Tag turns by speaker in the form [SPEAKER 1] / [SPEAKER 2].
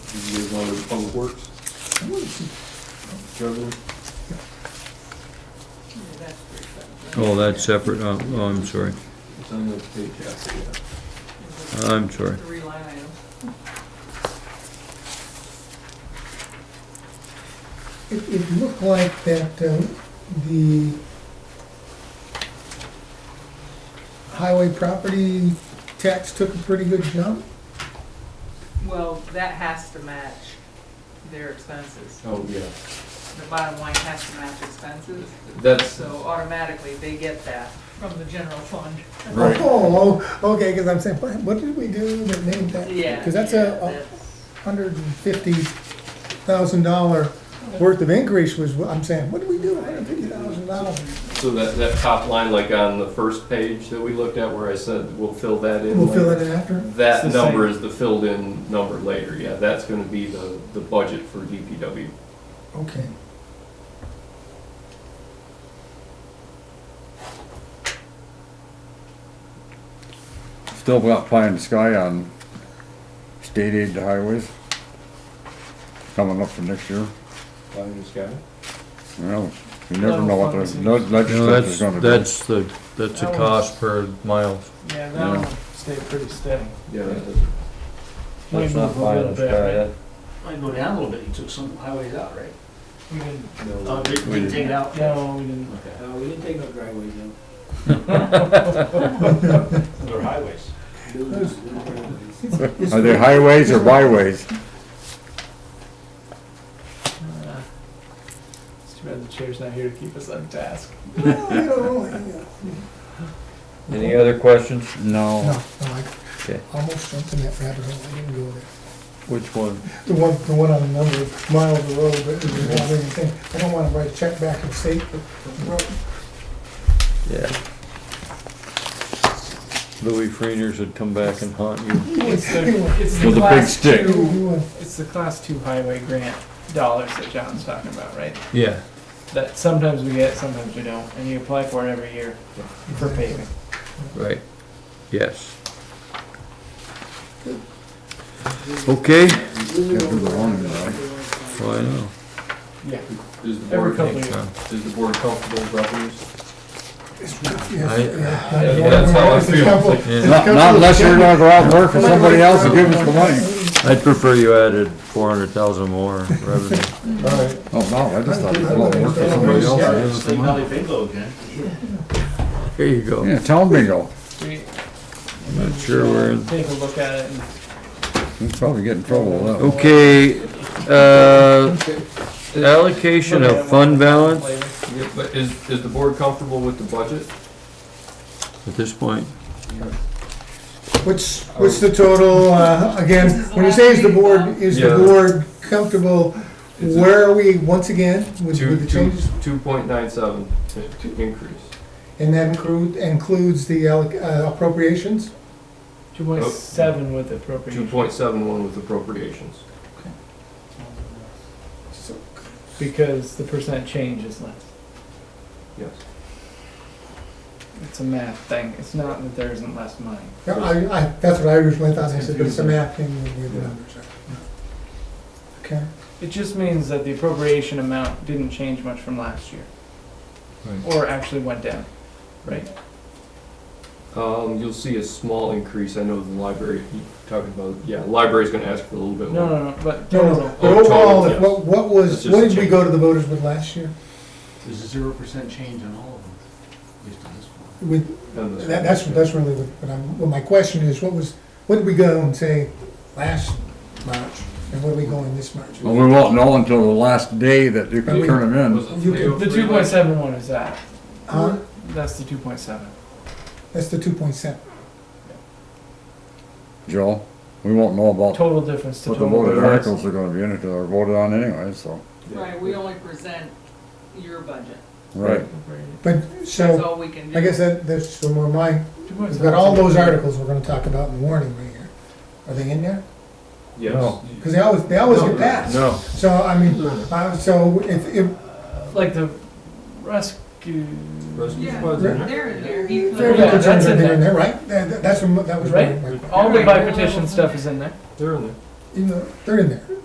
[SPEAKER 1] You guys want to public works? Governor?
[SPEAKER 2] Oh, that's separate, oh, oh, I'm sorry,
[SPEAKER 1] It's on the pay tax, yeah.
[SPEAKER 2] I'm sorry.
[SPEAKER 3] Three line items.
[SPEAKER 4] It, it looked like that uh, the highway property tax took a pretty good jump.
[SPEAKER 3] Well, that has to match their expenses.
[SPEAKER 1] Oh, yeah.
[SPEAKER 3] The bottom line has to match expenses,
[SPEAKER 1] That's,
[SPEAKER 3] so automatically they get that from the general fund.
[SPEAKER 1] Right.
[SPEAKER 4] Oh, oh, okay, because I'm saying, what, what did we do that made that?
[SPEAKER 3] Yeah.
[SPEAKER 4] Because that's
[SPEAKER 3] yeah,
[SPEAKER 4] a hundred and fifty thousand dollar worth of increase was, what I'm saying, what did we do, hundred and fifty thousand dollars?
[SPEAKER 1] so that, that top line, like on the first page that we looked at where I said, we'll fill that in.
[SPEAKER 4] We'll fill
[SPEAKER 1] later.
[SPEAKER 4] it in after.
[SPEAKER 1] That
[SPEAKER 5] It's the
[SPEAKER 1] number
[SPEAKER 5] same.
[SPEAKER 1] is the filled-in number later, yeah. That's gonna be the, the budget for DPW.
[SPEAKER 4] Okay.
[SPEAKER 6] Still got pie in the sky on state aid to highways. Coming up for next year.
[SPEAKER 1] Pie in the sky?
[SPEAKER 6] Well, you never know what the no-
[SPEAKER 2] No,
[SPEAKER 6] legislature's
[SPEAKER 2] that's,
[SPEAKER 6] gonna do.
[SPEAKER 2] that's the, that's a cost per mile.
[SPEAKER 5] Yeah,
[SPEAKER 6] Yeah.
[SPEAKER 5] that'll stay pretty steady.
[SPEAKER 1] Yeah, that does.
[SPEAKER 5] Might move a little bit, right?
[SPEAKER 7] Might go down a little bit, you took some highways out, right?
[SPEAKER 5] We didn't,
[SPEAKER 1] No.
[SPEAKER 7] Uh, did-
[SPEAKER 6] We
[SPEAKER 7] didn't
[SPEAKER 6] did.
[SPEAKER 7] take it out?
[SPEAKER 5] no, we didn't.
[SPEAKER 1] Okay.
[SPEAKER 7] No, we didn't take no driveways out.
[SPEAKER 5] They're highways.
[SPEAKER 7] No, no driveways.
[SPEAKER 6] Are they highways or byways?
[SPEAKER 5] Uh, It's too bad the chair's not here to keep us on task.
[SPEAKER 4] Well, you know, yeah.
[SPEAKER 2] Any other questions?
[SPEAKER 6] No.
[SPEAKER 4] No, no, I
[SPEAKER 2] Okay.
[SPEAKER 4] almost jumped in that rabbit hole, I didn't go there.
[SPEAKER 2] Which one?
[SPEAKER 4] The one, the one on the number of miles of road, but it was not anything. I don't wanna write a check back and say, but,
[SPEAKER 2] Yeah. Louis Freiners would come back and haunt you.
[SPEAKER 5] It's the, it's the
[SPEAKER 6] With a big
[SPEAKER 5] class
[SPEAKER 6] stick.
[SPEAKER 5] two,
[SPEAKER 4] you,
[SPEAKER 5] it's the class two highway grant dollars that John's talking about, right?
[SPEAKER 2] Yeah.
[SPEAKER 5] That sometimes we get, sometimes we don't, and you apply for it every year for paving.
[SPEAKER 2] Right, yes. Okay.
[SPEAKER 6] Can't do the wrong, you know.
[SPEAKER 2] Well, I know.
[SPEAKER 5] Yeah.
[SPEAKER 1] Is the
[SPEAKER 5] Every
[SPEAKER 1] board,
[SPEAKER 5] couple of
[SPEAKER 1] is
[SPEAKER 5] years.
[SPEAKER 1] the board comfortable with revenues?
[SPEAKER 2] I-
[SPEAKER 1] That's how I feel.
[SPEAKER 2] Yeah.
[SPEAKER 6] Not not unless you're gonna go out and work for somebody else and give us the money.
[SPEAKER 2] I'd prefer you added four hundred thousand more revenue.
[SPEAKER 6] Oh, no, I just thought you'd go out and work for somebody else and give us the
[SPEAKER 7] Sleep
[SPEAKER 6] money.
[SPEAKER 7] Valley bingo again.
[SPEAKER 2] There you go.
[SPEAKER 6] Yeah, town bingo.
[SPEAKER 5] We
[SPEAKER 2] Not sure where.
[SPEAKER 5] take a look at it and
[SPEAKER 6] You'd probably get in trouble with that.
[SPEAKER 2] Okay, uh, allocation of fund balance
[SPEAKER 5] later.
[SPEAKER 1] Yeah, but is, is the board comfortable with the budget?
[SPEAKER 2] at this point.
[SPEAKER 4] What's, what's the total, uh, again, when you say is the board, is the
[SPEAKER 1] Yeah.
[SPEAKER 4] board comfortable?
[SPEAKER 1] It's a-
[SPEAKER 4] Where are we, once again, with
[SPEAKER 1] Two,
[SPEAKER 4] with the
[SPEAKER 1] two,
[SPEAKER 4] changes?
[SPEAKER 1] two point nine seven increase.
[SPEAKER 4] And that include, includes the alloc- uh, appropriations?
[SPEAKER 5] Two point seven with
[SPEAKER 1] Two
[SPEAKER 5] appropriation,
[SPEAKER 1] point seven one with appropriations.
[SPEAKER 4] So,
[SPEAKER 5] because the percent change is less.
[SPEAKER 1] Yes.
[SPEAKER 5] It's a math thing, it's not that there isn't less money.
[SPEAKER 4] yeah, I, I, that's what I originally thought, I said, but it's a math thing with the
[SPEAKER 1] Yeah.
[SPEAKER 4] numbers. Okay.
[SPEAKER 5] It just means that the appropriation amount didn't change much from last year.
[SPEAKER 2] Right.
[SPEAKER 5] Or actually went down, right?
[SPEAKER 1] Um, you'll see a small increase, I know the library, you talking about, yeah, library's gonna ask for a little bit
[SPEAKER 5] No,
[SPEAKER 1] more.
[SPEAKER 5] no, no, but
[SPEAKER 4] No, no,
[SPEAKER 5] total,
[SPEAKER 4] no. but
[SPEAKER 1] Oh, total,
[SPEAKER 4] overall,
[SPEAKER 1] yes.
[SPEAKER 4] what, what
[SPEAKER 1] That's
[SPEAKER 4] was,
[SPEAKER 1] just
[SPEAKER 4] what
[SPEAKER 1] a
[SPEAKER 4] did we
[SPEAKER 1] change.
[SPEAKER 4] go to the voters with last year?
[SPEAKER 7] There's a zero percent change on all of them, at least on this one.
[SPEAKER 4] With,
[SPEAKER 1] on this
[SPEAKER 4] That,
[SPEAKER 1] one.
[SPEAKER 4] that's, that's really what, what I'm, well, my question is, what was, what did we go and say last March, and what are we going this March?
[SPEAKER 1] Oh.
[SPEAKER 6] Well, we won't know until the last day that you can turn them in.
[SPEAKER 1] Was oh it
[SPEAKER 4] You can-
[SPEAKER 1] 303?
[SPEAKER 5] the two point seven one is that,
[SPEAKER 4] Huh?
[SPEAKER 5] that's the two point seven.
[SPEAKER 4] That's the two point seven.
[SPEAKER 6] Joe, we won't know about
[SPEAKER 5] Total difference to
[SPEAKER 6] what the
[SPEAKER 5] total.
[SPEAKER 6] voted
[SPEAKER 5] difference.
[SPEAKER 6] articles are gonna be in it, or voted on anyway, so.
[SPEAKER 3] Right, we only present your budget,
[SPEAKER 6] Right.
[SPEAKER 4] But,
[SPEAKER 3] that's
[SPEAKER 4] so,
[SPEAKER 3] all we can do.
[SPEAKER 4] I guess that, that's some more my,
[SPEAKER 5] 2.7.
[SPEAKER 4] we've got all those articles we're gonna talk about in the warning right here. Are they in there?
[SPEAKER 1] Yes.
[SPEAKER 2] No.
[SPEAKER 4] Cause they always, they always
[SPEAKER 1] No,
[SPEAKER 4] get passed.
[SPEAKER 2] No,
[SPEAKER 4] So, I mean, uh, so if, if,
[SPEAKER 5] Like the rescue,
[SPEAKER 1] Rescue
[SPEAKER 3] Yeah.
[SPEAKER 1] squad's in
[SPEAKER 3] They're,
[SPEAKER 1] there.
[SPEAKER 3] they're.
[SPEAKER 4] they're
[SPEAKER 5] Yeah, that's
[SPEAKER 4] concerned
[SPEAKER 5] in
[SPEAKER 4] they're in
[SPEAKER 5] there.
[SPEAKER 4] there, right? That, that- that's, what my- that was my,
[SPEAKER 5] Right.
[SPEAKER 4] my,
[SPEAKER 5] all the by petition stuff is in there.
[SPEAKER 1] They're in there.
[SPEAKER 4] you know, they're in there.